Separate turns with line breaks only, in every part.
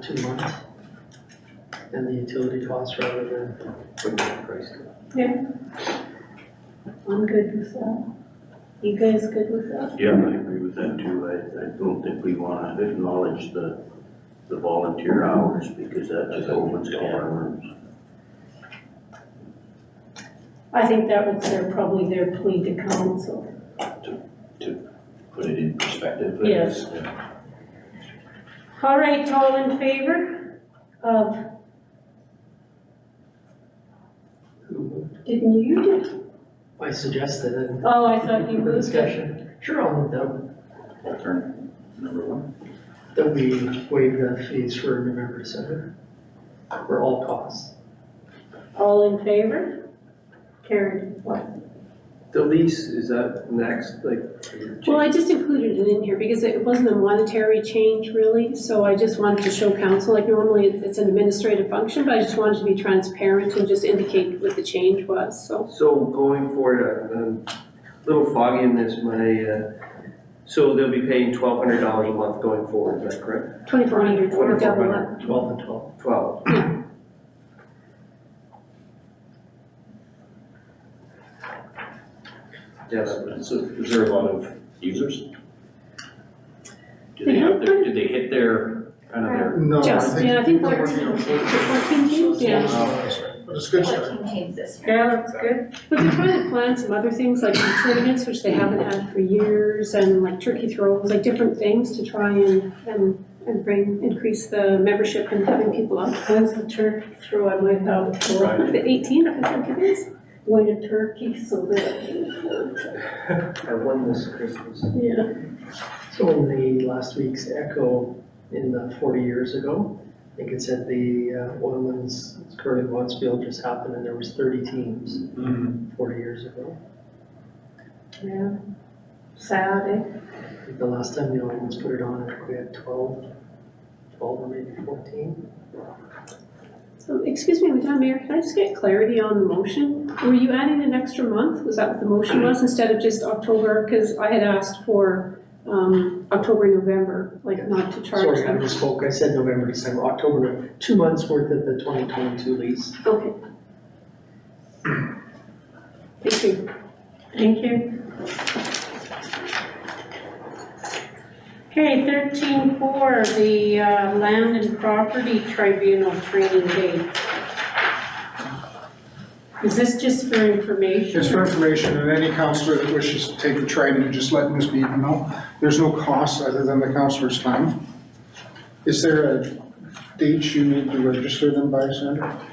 too much. And the utility costs rather than,
I'm good with that. You guys good with that?
Yeah, I agree with that too. I, I don't think we wanna acknowledge the, the volunteer hours because that just opens a can of worms.
I think that was their, probably their plea to council.
put it in perspective. I
Yes.
guess. Yeah.
All right, all in favor of, didn't you do it?
I suggested it.
Oh, I thought you
For
moved it.
discussion. Sure, I'll move that,
Alternate number one.
that we waive the fees for new members, so, for all costs.
All in favor? Carried. Well,
The lease, is that next, like?
I just included it in here because it wasn't a monetary change really, so I just wanted to show council, like normally it- it's an administrative function, but I just wanted to be transparent and just indicate what the change was, so.
So going forward, I'm- I'm a little foggy in this, my, uh, so they'll be paying twelve hundred dollars a month going forward, is that correct?
Twenty-four hundred for a double up.
2400,
Twelve and twelve.
Twelve. Yes,
So is there a lot of users? Do they have their, did they hit their, kind of their,
No, I
Just, yeah, I
think,
think fourteen, fourteen games, yeah.
but it's a good start.
Fourteen games this year.
Yeah, that's good. But they're trying to plan some other things, like some tournaments, which they haven't had for years, and like turkey throws, like different things to try and, and, and bring, increase the membership and having people up.
When's the turkey throw? I might have it for
right?
The eighteen, I think it is.
white a turkey so that,
I won this Christmas.
yeah.
So in the last week's Echo in the forty years ago, I think it said the uh, Oilman's Curling Watsfield just happened and there was thirty teams forty years ago.
Yeah. Sad, eh?
I think The last time the Oilman's put it on, I think we had twelve, twelve or maybe fourteen.
So, excuse me, Madam Mayor, can I just get clarity on the motion? Were you adding an extra month? Was that what the motion was instead of just October? Because I had asked for, um, October, November, like not to charge
Sorry, I
them.
misspoke. I said November, December, October, two months worth of the twenty twenty-two lease.
Okay. Thank you.
Thank you.
Okay, thirteen four, the uh, Land and Property Tribunal training date. Is this just for information?
It's for information, and any counselor that wishes to take the training, just let Ms. Beaton know. There's no cost other than the counselor's time. Is there a date you need to register them by, Sandra?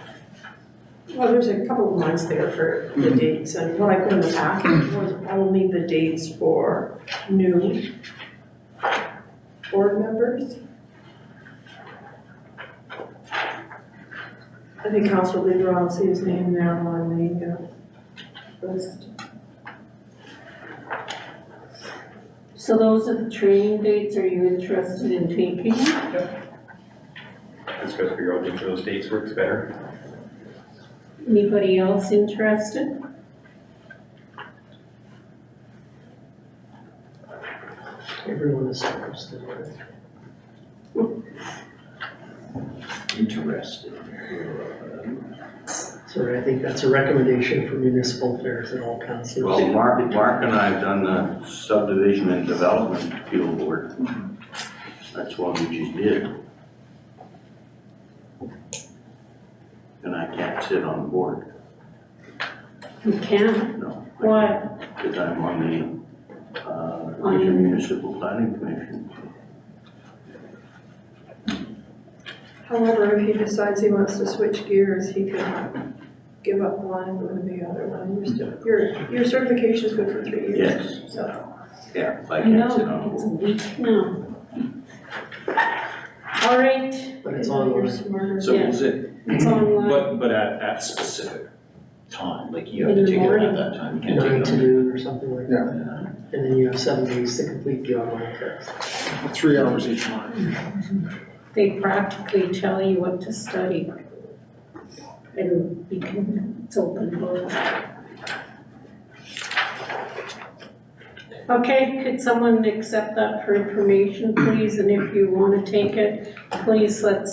Well, there's a couple of lines there for the
Mhm.
dates, and what I put in the packet was only the dates for new board members. I think Council Leader, I'll see his name there on the uh, list.
So those are the training dates, are you interested in taking?
Let's go figure out which of those dates works better.
Anybody else interested?
Everyone is interested in it.
Interested.
Sorry, I think that's a recommendation for municipal affairs and all councils.
Well, Mark, Mark and I have done the subdivision and development appeal board. That's one we just did. And I can't sit on the board,
You can,
no.
why?
Because I'm on the, uh,
On the-
municipal planning commission.
However, if he decides he wants to switch gears, he can give up one and go to the other one. You're still- Your, your certification is good for three years,
Yes,
so.
yeah, I
I
can't sit on the
know,
board.
it's weak now. All right,
But it's all
You're
yours.
smarter.
So is it,
it's online.
but, but at, at specific time, like you have to
In the
take it
morning.
at that time, you can't
Nine
take
to
it
noon or something like that.
on. Yeah.
And then you have seven days to complete the online test.
Three hours each month.
They practically tell you what to study. And you can, it's open book.
Okay, could someone accept that for information, please? And if you want to take it, please let's